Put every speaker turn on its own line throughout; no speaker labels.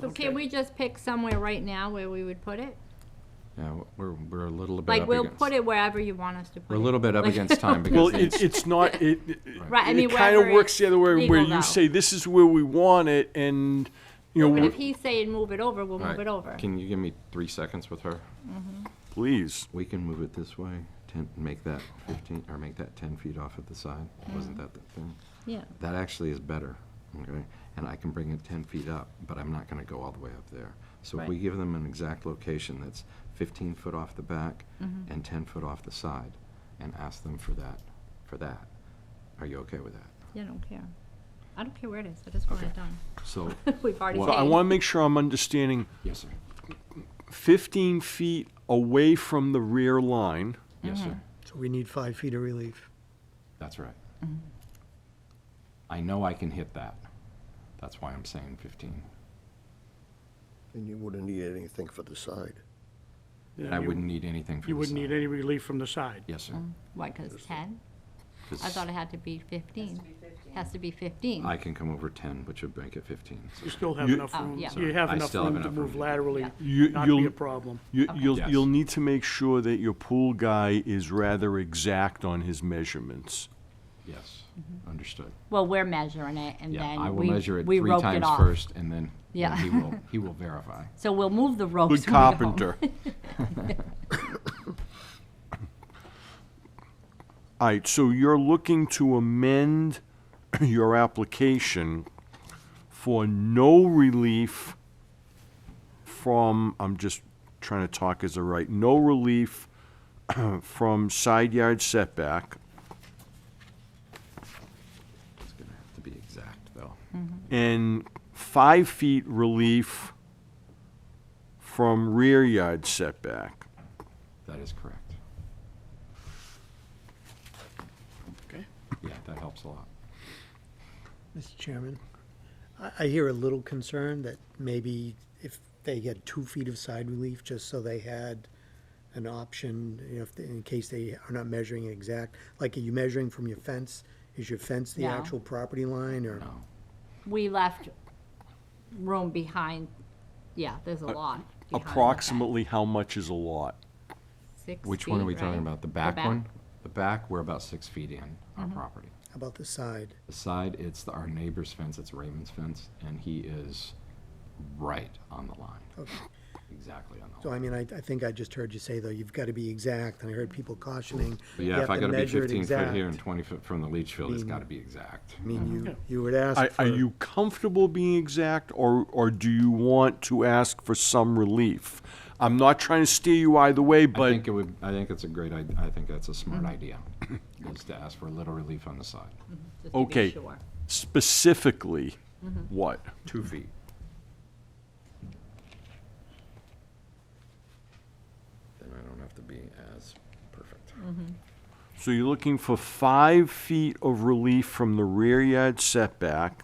So can we just pick somewhere right now where we would put it?
Yeah, we're, we're a little bit
Like,
up
we'll
against.
put it wherever you want us to put it.
We're a little bit up
Like-
against time because.
Well,
the-
it, it's not, it,
Right, I mean,
it kind of
wherever
works the
it's
other way, where
legal,
you
though.
say, this is where we want it, and, you know.
But if
we're-
he's saying move it over, we'll
All
move
right,
it over.
Can you give me three seconds with her?
Please.
We can move it this way, ten, make that fifteen, or make that ten feet off at the side. Wasn't that the thing?
Yeah,
That actually is better, okay? And I can bring it ten feet up, but I'm not gonna go all the way up there. So if we
Right.
give them an exact location that's fifteen foot off the back
Mm-hmm.
and ten foot off the side, and ask them for that, for that, are you okay with that?
yeah, I don't care. I don't care where it is, I just want it
Okay.
done.
So,
We've already
Well,
So I
paid.
want to make sure I'm understanding
yes, sir.
15 feet away from the rear line,
Yes,
Mm-hmm.
sir.
So we need five feet of relief.
That's right. I know I can hit that. That's why I'm saying fifteen.
And you wouldn't need anything for the side.
then
I
you-
wouldn't need anything for
You
the
wouldn't need
side.
any relief from the side.
Yes, sir.
Why, because ten?
'Cause
I Mm. thought it had to be fifteen. Has to be fifteen.
I can come over ten, which would make it fifteen. so-
You still have
You-
enough
Oh,
room.
yeah.
You have
I
enough
still have
room to
enough room to
move
do that.
laterally,
You-
not
you'll-
be a problem.
you, you'll,
Yes.
you'll need to make sure that your pool guy is rather exact on his measurements.
Yes, understood.
Well, we're measuring it Mm-hmm. and
Yeah, I
then
will
we,
measure it
we
three
roped it
times
off.
first and then then
Yeah.
he will, he will verify.
Oh, So we'll move the ropes.
Good
when we go home.
carpenter. All right, so you're looking to amend your application for no relief from, I'm just trying to talk as a right, no relief from side yard setback
It's gonna have to be exact, though.
and five feet relief from rear yard setback.
That is correct.
Okay.
Yeah, that helps a lot.
Mr. Chairman, I, I hear a little concern that maybe if they had two feet of side relief, just so they had an option, you know, if, they- in case they are not measuring it exact, like are you measuring from your fence? Is your fence the
No.
actual property line or?
No,
We left room behind, yeah, there's a lot. behind the back.
Approximately how much is a lot?
Six
which one are
feet,
we talking
right?
about? The back one? The back, we're about six feet in our
Mm-hmm.
property.
About the side?
The side, it's the- our neighbor's fence, it's Raymond's fence, and he is right on the line. Exactly on the
So
line.
I mean, I, I think I just heard you say though, you've gotta be exact, and I heard people cautioning.
But
you
yeah, if
have
I
to
gotta be
measure it
fifteen foot here
exact.
and twenty foot from the leach field, it's gotta be exact.
I mean, you, you would ask
Are,
for.
are you comfortable being exact, or, or do you want to ask for some relief? I'm not trying to steer you either way,
I
but
think it would, I think it's a great, I, I think that's a smart
Mm-hmm.
idea, is to ask for a little relief on the side.
Just to be
okay,
sure.
specifically, what?
Two feet. Then I don't have to be as perfect.
Mm.
So you're looking for five feet of relief from the rear yard setback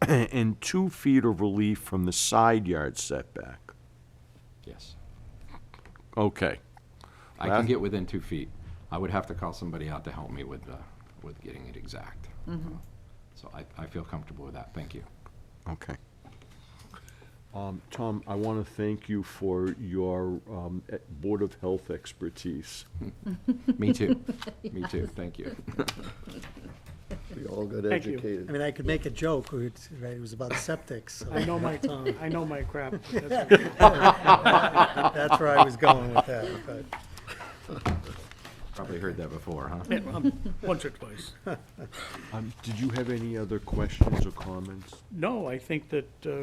and two feet of relief from the side yard setback.
Yes.
Okay.
I
Well-
can get within two feet. I would have to call somebody out to help me with, uh, with getting it exact. So I, I feel comfortable with that. Thank you.
Okay. Um, Tom, I want to thank you for your um, e- Board of Health expertise.
Me too. Me too. Thank you.
We all got
Thank you.
educated.
I mean, I could make a joke, or it's- right, it was about septic, so
I know my, I know my crap. That's okay.
that's where I was going with that, but.
Probably heard that before, huh?
Yeah, um, Once or twice.
Um, Did you have any other questions or comments?
No, I think that, uh,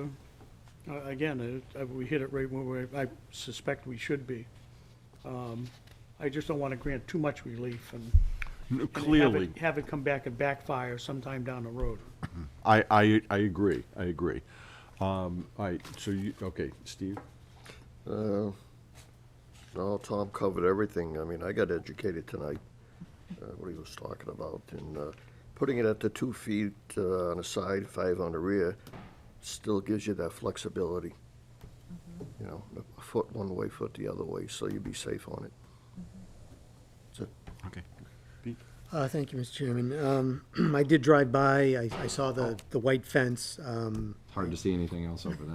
uh, again, uh, uh, we hit it right where we- I suspect we should be. Um, I just don't want to grant too much relief and.
No,
and have it-
Clearly,
Have it come back and backfire sometime down the road.
I, I, I agree, I agree. Um, All right, so you, okay, Steve?
Uh, No, Tom covered everything. I mean, I got educated tonight, uh, what he was talking about. And uh, putting it at the two feet uh, on the side, five on the rear, still gives you that flexibility. You know, a foot one way, foot the other way, so you'd be safe on it. That's it.
Okay.
Uh, Thank you, Mr. Chairman. Um, I did drive by, I I saw the, the white fence. um,
Hard to see anything else over that.